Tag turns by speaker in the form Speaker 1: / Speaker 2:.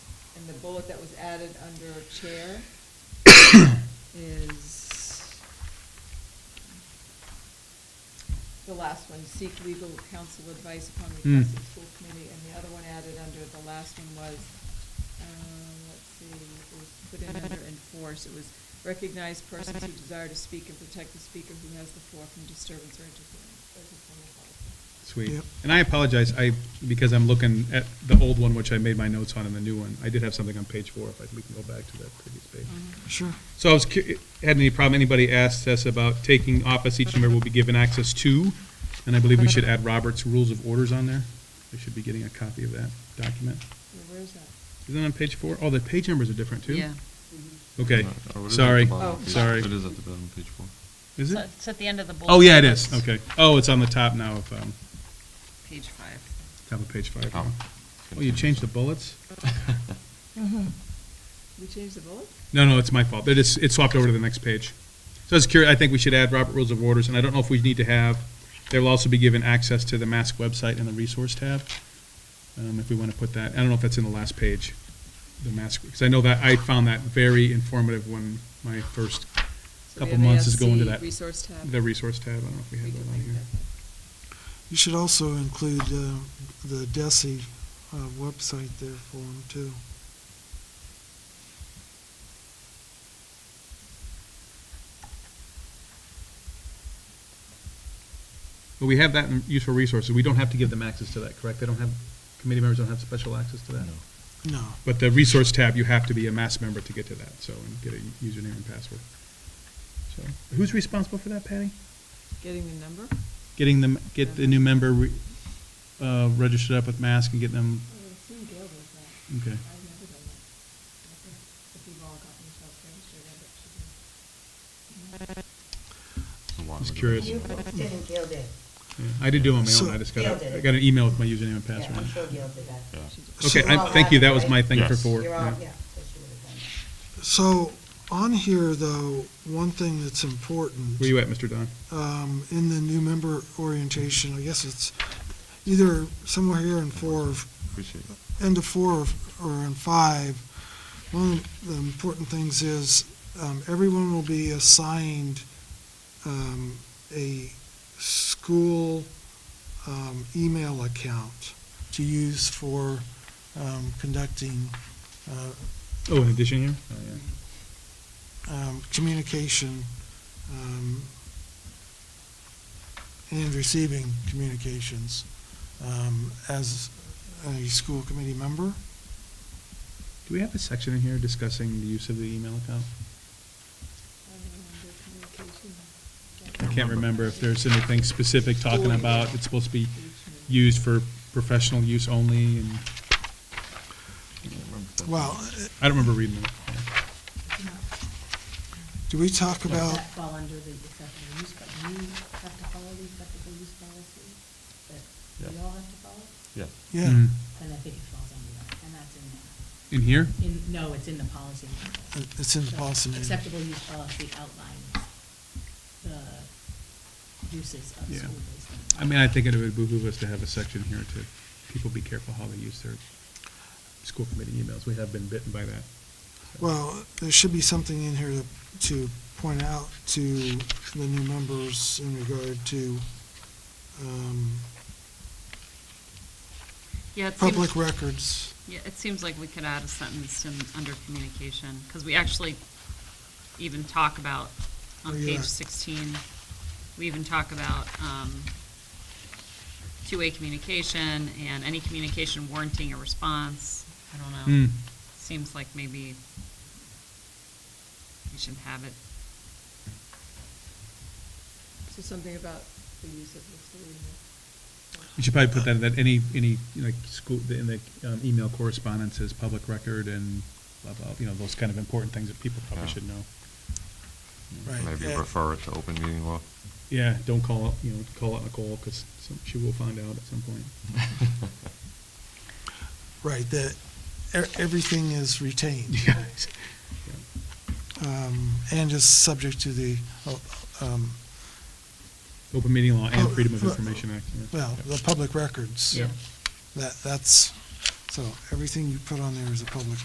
Speaker 1: and the bullet that was added under chair is the last one, seek legal counsel advice upon
Speaker 2: Hmm.
Speaker 1: request of school committee, and the other one added under, the last one was, um, let's see, it was put in under enforce, it was recognize persons who desire to speak and protect the speaker who has the floor from disturbance or interference. Those are some of the policies.
Speaker 2: Sweet.
Speaker 3: Yep.
Speaker 2: And I apologize, I, because I'm looking at the old one, which I made my notes on, and the new one. I did have something on page four, if I, we can go back to that previous page.
Speaker 3: Mm-hmm. Sure.
Speaker 2: So I was, cu- had any problem, anybody asked us about taking office, each member will be given access to, and I believe we should add Robert's Rules of Orders on there. They should be getting a copy of that document.
Speaker 1: Yeah, where's that?
Speaker 2: Isn't it on page four? Oh, the page numbers are different, too?
Speaker 4: Yeah.
Speaker 2: Okay,
Speaker 3: Mm-hmm.
Speaker 5: No, or it is at
Speaker 2: sorry,
Speaker 5: the bottom of
Speaker 1: Oh,
Speaker 5: page-
Speaker 2: sorry.
Speaker 5: It is at the bottom of page four.
Speaker 2: Is
Speaker 4: So
Speaker 2: it?
Speaker 4: It's at the end of the bullet.
Speaker 2: Oh, yeah, it is,
Speaker 4: points,
Speaker 2: okay. Oh, it's on the top now of, um,
Speaker 4: Page five.
Speaker 2: top of page five.
Speaker 5: Oh.
Speaker 2: Oh, you changed the bullets?
Speaker 1: We changed the bullet?
Speaker 2: No, no, it's my fault. They just, it swapped over to the next page. So I was curious, I think we should add Robert Rules of Orders, and I don't know if we need to have, they will also be given access to the mask website and the resource tab, um, if we want to put that, I don't know if that's in the last page, the mask, because I know that, I found that very informative when my first,
Speaker 1: So the
Speaker 2: couple months is going to
Speaker 1: MASC
Speaker 2: that.
Speaker 1: Resource tab.
Speaker 2: the resource tab, I don't know if we
Speaker 1: We
Speaker 2: had
Speaker 1: can
Speaker 2: that on
Speaker 1: make
Speaker 2: here.
Speaker 1: that.
Speaker 3: You should also include uh, the DESI uh, website there for them too.
Speaker 2: But we have that in useful resources, we don't have to give them access to that, correct? They don't have, committee members don't have special access to that?
Speaker 3: No.
Speaker 2: But the resource tab, you have to be a mass member to get to that, so, and get a username and password. So, who's responsible for that, Patty?
Speaker 1: Getting the number?
Speaker 2: Getting them, get the new member re- uh, registered up with mask and get them,
Speaker 1: I would assume Gail does that.
Speaker 2: okay.
Speaker 1: I've never done that. I think if we've all gotten ourselves registered, I bet she
Speaker 5: The one
Speaker 2: Just
Speaker 5: with the
Speaker 2: curious.
Speaker 5: bullets.
Speaker 6: Didn't Gil did.
Speaker 2: Yeah, I did do it on my own, I just got, a- I got an email with my username and
Speaker 6: Yeah, I'm sure
Speaker 2: password.
Speaker 6: Gil did that.
Speaker 5: Yeah.
Speaker 2: Okay, I, thank you, that was my thing for
Speaker 5: Yes.
Speaker 2: four.
Speaker 6: You're all,
Speaker 2: yeah.
Speaker 6: yeah, so she would have done that.
Speaker 3: So on here though, one thing that's important.
Speaker 2: Where you at, Mr. Don?
Speaker 3: um, in the new member orientation, I guess it's either somewhere here in four, or-
Speaker 5: Appreciate it.
Speaker 3: end of four or in five, one of the important things is, um, everyone will be assigned, um, a school, um, email account to use for, um, conducting, uh,
Speaker 2: Oh, in addition here? Oh, yeah.
Speaker 3: um, communication, um, and receiving communications, um, as a school committee member.
Speaker 2: Do we have a section in here discussing the use of the email account? I can't remember if there's anything specific talking about, it's supposed to be used for professional use only, and
Speaker 5: Can't remember if that's-
Speaker 3: Well,
Speaker 2: I don't remember reading it.
Speaker 3: do we talk about,
Speaker 7: that fall under the acceptable use, but you have to follow the acceptable use policy that we
Speaker 5: Yeah.
Speaker 7: all have to follow?
Speaker 5: Yeah.
Speaker 3: yeah,
Speaker 2: Mm.
Speaker 7: Then I think it falls under that, and that's in that.
Speaker 2: In here?
Speaker 7: In, no, it's in the policy. manual.
Speaker 3: it- it's in the
Speaker 7: So
Speaker 3: policy manual.
Speaker 7: Acceptable use policy outlines the uses of
Speaker 2: Yeah.
Speaker 7: school-based.
Speaker 2: I mean, I think it would behoove us to have a section here to, people be careful how they use their school committee emails. We have been bitten by that.
Speaker 3: Well, there should be something in here to, to point out to the new members in regard to, um,
Speaker 4: Yeah, it seems,
Speaker 3: public records.
Speaker 4: yeah, it seems like we could add a sentence in, under communication, because we actually even talk about, on
Speaker 3: Where you
Speaker 4: page
Speaker 3: at?
Speaker 4: sixteen, we even talk about, um, two-way communication and any communication warranting a response. I don't
Speaker 2: Hmm.
Speaker 4: know. Seems like maybe we should have it
Speaker 1: So something about the use of the school email.
Speaker 2: You should probably put that, that any, any, you know, like, school, in the um, email correspondence is public record and blah, blah, you know, those kind of important things that people probably
Speaker 5: Yeah.
Speaker 2: should know.
Speaker 3: Right,
Speaker 5: Maybe
Speaker 3: yeah.
Speaker 5: refer it to open meeting law.
Speaker 2: Yeah, don't call, up, you know, call out Nicole, because she will find out at some point.
Speaker 3: Right, that, e- everything is retained.
Speaker 2: Yeah.
Speaker 3: um, and is subject to the, uh, um,
Speaker 2: Open meeting law and Freedom of
Speaker 3: Oh, uh,
Speaker 2: Information Act. yeah.
Speaker 3: well, the public records.
Speaker 2: Yeah.
Speaker 3: That, that's, so everything you put on there is a public